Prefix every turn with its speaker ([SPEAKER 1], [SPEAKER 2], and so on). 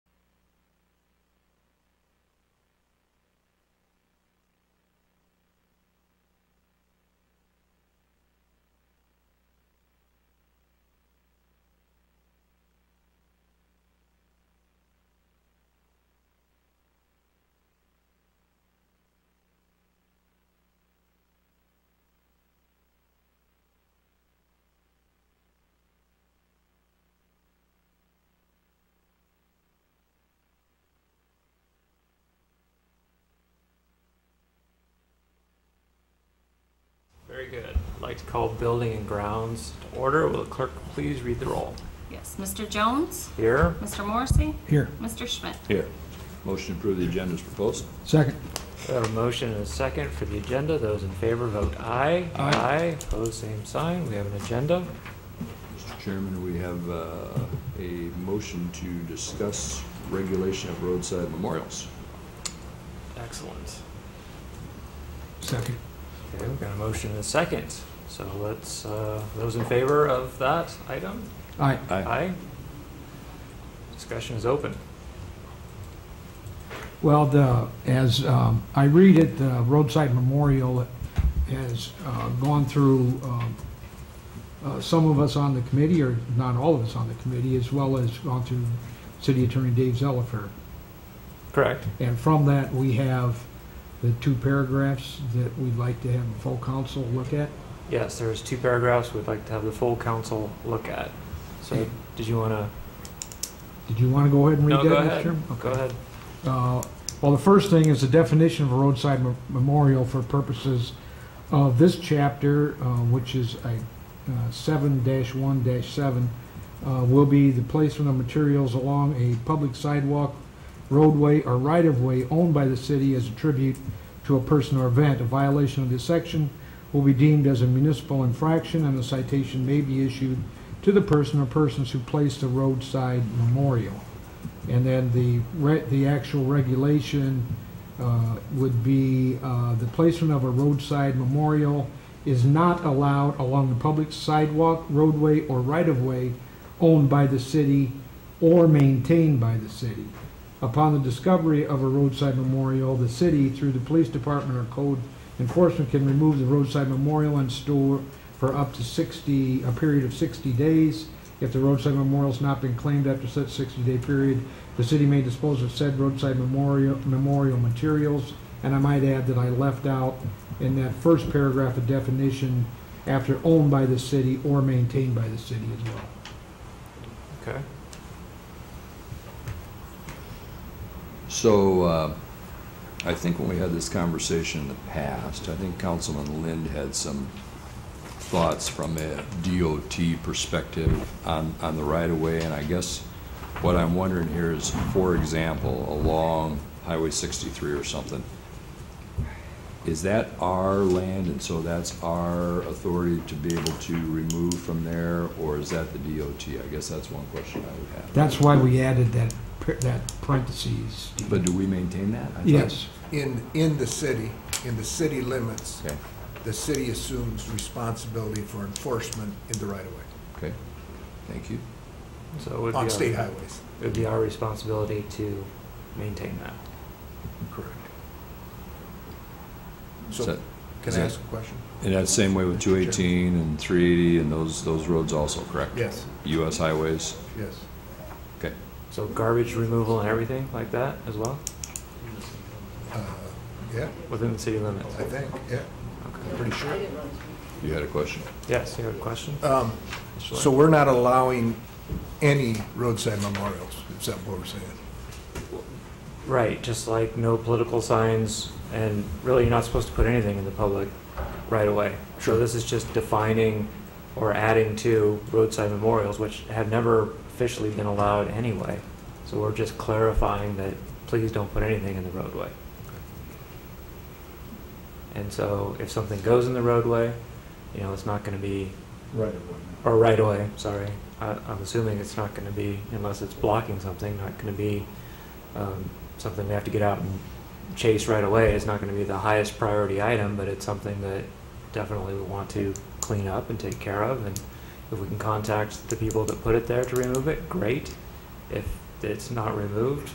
[SPEAKER 1] like to call Building and Grounds to order. Will the clerk please read the roll?
[SPEAKER 2] Yes, Mr. Jones,
[SPEAKER 1] Here.
[SPEAKER 2] Mr. Morrissey,
[SPEAKER 3] Here.
[SPEAKER 2] Mr. Schmidt.
[SPEAKER 4] Here. Motion to approve the agenda is proposed.
[SPEAKER 3] Second.
[SPEAKER 1] We have a motion and a second for the agenda. Those in favor vote aye.
[SPEAKER 3] Aye.
[SPEAKER 1] Opposed, same sign. We have an agenda.
[SPEAKER 4] Mr. Chairman, we have uh, a motion to discuss regulation of roadside memorials.
[SPEAKER 1] Excellent.
[SPEAKER 3] Second.
[SPEAKER 1] Okay, we've got a motion and a second. So let's, uh, those in favor of that item?
[SPEAKER 3] Aye.
[SPEAKER 1] Aye. Discussion is open.
[SPEAKER 3] Well, the, as um, I read it, the roadside memorial has uh, gone through, um, uh, some of us on the committee, or not all of us on the committee, as well as gone through City Attorney Dave Zellifer.
[SPEAKER 1] Correct.
[SPEAKER 3] And from that, we have the two paragraphs that we'd like to have the full council look at.
[SPEAKER 1] Yes, there's two paragraphs we'd like to have the full council look at. So did you want to?
[SPEAKER 3] Did you want to go ahead and
[SPEAKER 1] No,
[SPEAKER 3] read that?
[SPEAKER 1] go
[SPEAKER 3] Mr.
[SPEAKER 1] ahead.
[SPEAKER 3] Chairman?
[SPEAKER 1] Go
[SPEAKER 3] Okay.
[SPEAKER 1] ahead.
[SPEAKER 3] Uh, Well, the first thing is the definition of a roadside me- memorial for purposes of this chapter, uh, which is a uh, seven one seven, uh, will be the placement of materials along a public sidewalk, roadway, or right-of-way owned by the city as a tribute to a person or event. A violation of this section will be deemed as a municipal infraction, and a citation may be issued to the person or persons who placed a roadside memorial. And then the, re- the actual regulation uh, would be, uh, the placement of a roadside memorial is not allowed along the public sidewalk, roadway, or right-of-way owned by the city or maintained by the city. Upon the discovery of a roadside memorial, the city, through the police department or code enforcement, can remove the roadside memorial and store for up to 60, a period of 60 days. If the roadside memorial's not been claimed after such 60-day period, the city may dispose of said roadside memorial, memorial materials. And I might add that I left out in that first paragraph a definition after owned by the city or maintained by the city as well.
[SPEAKER 1] Okay.
[SPEAKER 4] So uh, I think when we had this conversation in the past, I think Councilman Lind had some thoughts from a DOT perspective on, on the right-of-way, and I guess what I'm wondering here is, for example, along Highway 63 or something, is that our land, and so that's our authority to be able to remove from there, or is that the DOT? I guess that's one question I would have.
[SPEAKER 3] That's why we added that, par- that parentheses.
[SPEAKER 4] But do we maintain that? I thought-
[SPEAKER 3] Yes,
[SPEAKER 5] in, in the city, in the city limits,
[SPEAKER 4] Okay.
[SPEAKER 5] the city assumes responsibility for enforcement in the right-of-way,
[SPEAKER 4] Okay, thank you.
[SPEAKER 1] So it would be. our-
[SPEAKER 5] on state highways.
[SPEAKER 1] It would be our responsibility to maintain that.
[SPEAKER 5] Correct.
[SPEAKER 4] Is
[SPEAKER 5] So,
[SPEAKER 4] that-
[SPEAKER 5] can I ask a question?
[SPEAKER 4] And that's same way with two eighteen and three eighty and those, those roads also, correct?
[SPEAKER 5] Yes,
[SPEAKER 4] US highways,
[SPEAKER 5] yes.
[SPEAKER 1] So garbage removal and everything like that as well,
[SPEAKER 5] Uh, Yeah,
[SPEAKER 1] within the city limits?
[SPEAKER 5] I think, yeah,
[SPEAKER 1] Okay.
[SPEAKER 5] I'm pretty sure.
[SPEAKER 4] you had a question?
[SPEAKER 1] Yes, you have a question?
[SPEAKER 5] Um, So we're not allowing any roadside memorials, is that what we're saying?
[SPEAKER 1] Right, just like no political signs, and really, you're not supposed to put anything in the public right away. So
[SPEAKER 5] Sure.
[SPEAKER 1] this is just defining or adding to roadside memorials, which have never officially been allowed anyway. So we're just clarifying that please don't put anything in the roadway. And so if something goes in the roadway, you know, it's not gonna be
[SPEAKER 5] Right.
[SPEAKER 1] or right away, sorry. I, I'm assuming it's not going to be, unless it's blocking something, not going to be um, something we have to get out and chase right away. It's not going to be the highest priority item, but it's something that definitely we want to clean up and take care of. And if we can contact the people that put it there to remove it, great. If it's not removed,